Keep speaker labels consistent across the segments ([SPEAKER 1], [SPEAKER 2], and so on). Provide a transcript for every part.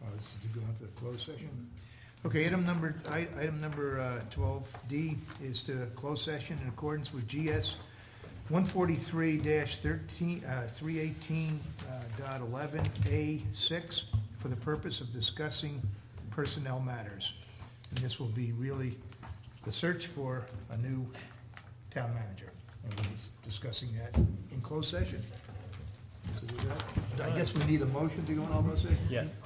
[SPEAKER 1] Uh, to go into the closed session. Okay, item number, i- item number uh, twelve D is to close session in accordance with GS one forty-three thirteen, uh, three eighteen, uh, dot eleven A six for the purpose of discussing personnel matters. And this will be really the search for a new town manager. And we'll be discussing that in closed session. So with that, I guess we need a motion to go in all those sessions?
[SPEAKER 2] Yes.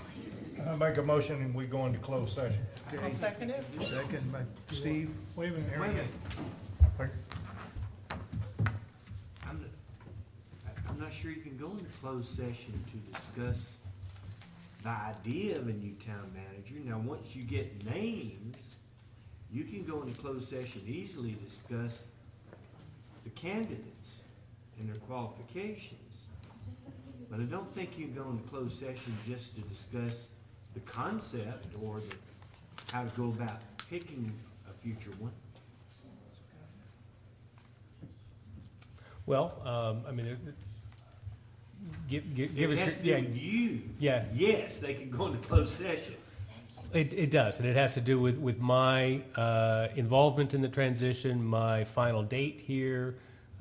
[SPEAKER 3] I make a motion and we go into closed session.
[SPEAKER 1] I'll second it. Second by Steve.
[SPEAKER 3] Wait a minute,
[SPEAKER 1] Wait a minute.
[SPEAKER 3] Pardon?
[SPEAKER 4] I'm, I'm not sure you can go into closed session to discuss the idea of a new town manager. Now, once you get names, you can go into closed session easily to discuss the candidates and their qualifications. But I don't think you can go into closed session just to discuss the concept or the, how to go about picking a future one.
[SPEAKER 2] Well, um, I mean, it- it- give, give, give
[SPEAKER 4] It
[SPEAKER 2] us,
[SPEAKER 4] has to
[SPEAKER 2] your-
[SPEAKER 4] be
[SPEAKER 2] yeah,
[SPEAKER 4] you.
[SPEAKER 2] yeah,
[SPEAKER 4] Yes, they can go into closed session.
[SPEAKER 2] it, it does, and it has to do with, with my, uh, involvement in the transition, my final date here,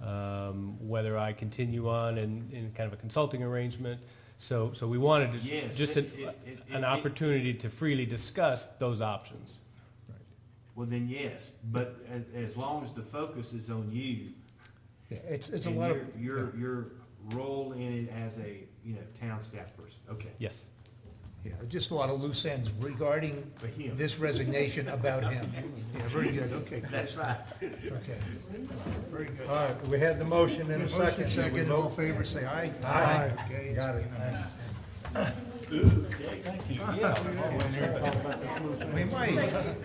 [SPEAKER 2] um, whether I continue on in, in kind of a consulting arrangement. So, so we wanted to,
[SPEAKER 4] Yes,
[SPEAKER 2] just
[SPEAKER 4] it-
[SPEAKER 2] an,
[SPEAKER 4] it- it-
[SPEAKER 2] an
[SPEAKER 4] it-
[SPEAKER 2] opportunity to freely discuss those options.
[SPEAKER 4] Well, then yes, but a- as long as the focus is on you.
[SPEAKER 3] Yeah, It's, it's a
[SPEAKER 4] and
[SPEAKER 3] lot of,
[SPEAKER 4] your- Your, your role in it as a, you know, town staff person, okay.
[SPEAKER 2] Yes.
[SPEAKER 1] Yeah, just a lot of loose ends regarding
[SPEAKER 4] For him.
[SPEAKER 1] this resignation about him. Yeah, very good, okay,
[SPEAKER 4] That's right.
[SPEAKER 1] okay. Very good.
[SPEAKER 3] all right, we had the motion and a
[SPEAKER 1] Motion
[SPEAKER 3] second. We
[SPEAKER 1] second, all in
[SPEAKER 3] vote.
[SPEAKER 1] favor, say aye.
[SPEAKER 3] Aye.
[SPEAKER 1] Okay, it's
[SPEAKER 3] Got it.
[SPEAKER 1] unanimous.
[SPEAKER 3] Yeah.
[SPEAKER 1] We might,